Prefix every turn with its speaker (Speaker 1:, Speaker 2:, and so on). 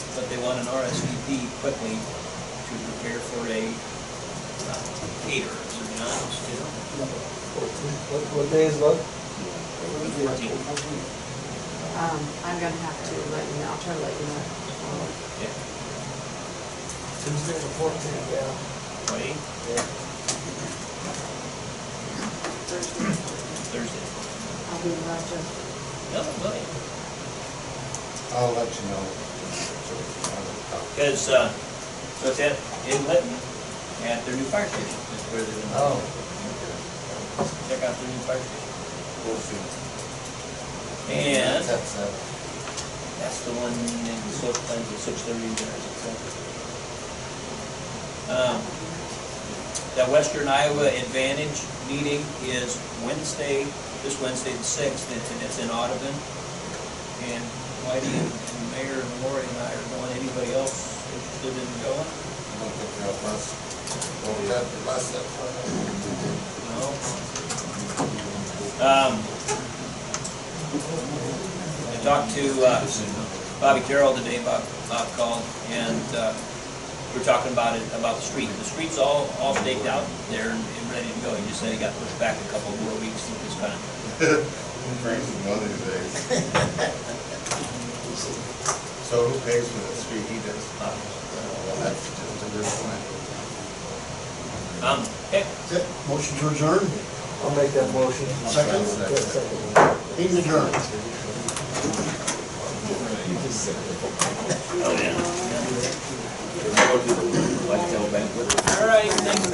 Speaker 1: but they want an RSVP quickly to prepare for a uh, caterer, to be honest, you know?
Speaker 2: What, what day is love?
Speaker 3: Um, I'm gonna have to let you know, I'll try to let you know.
Speaker 1: Yeah,
Speaker 2: Tuesday the fourteenth, yeah.
Speaker 1: Friday,
Speaker 2: Yeah.
Speaker 3: Thursday,
Speaker 1: Thursday.
Speaker 3: I'll be in Rochester.
Speaker 1: No, well,
Speaker 4: I'll let you know.
Speaker 1: because, uh, so it's at, in Lytton, at their new fire station, is where they're gonna.
Speaker 2: Oh.
Speaker 1: Check out their new fire station.
Speaker 4: We'll see.
Speaker 1: And
Speaker 4: That's, uh,
Speaker 1: That's the one in the slope plans at six thirty and there, so. Um, That Western Iowa Advantage meeting is Wednesday, this Wednesday the sixth, and it's- and it's in Audubon. And Whitey and and Mayor and Lori and I are going, anybody else interested in going?
Speaker 4: I don't think they'll last, well, we have to last that far.
Speaker 1: No? Um, I talked to, uh, Bobby Carroll today, Bob, Bob called, and, uh, we were talking about it, about the street. The street's all, all staked out there and and ready to go. He just said he got pushed back a couple more weeks with this kind of,
Speaker 4: Freezing one of these days. So who pays for the street he does?
Speaker 1: uh,
Speaker 4: Well, that's just a good point.
Speaker 1: um, heck,
Speaker 5: Okay, Motion to adjourn,
Speaker 2: I'll make that motion.
Speaker 5: Second?
Speaker 2: Yeah, second.
Speaker 5: meeting adjourned.
Speaker 1: all right, thanks,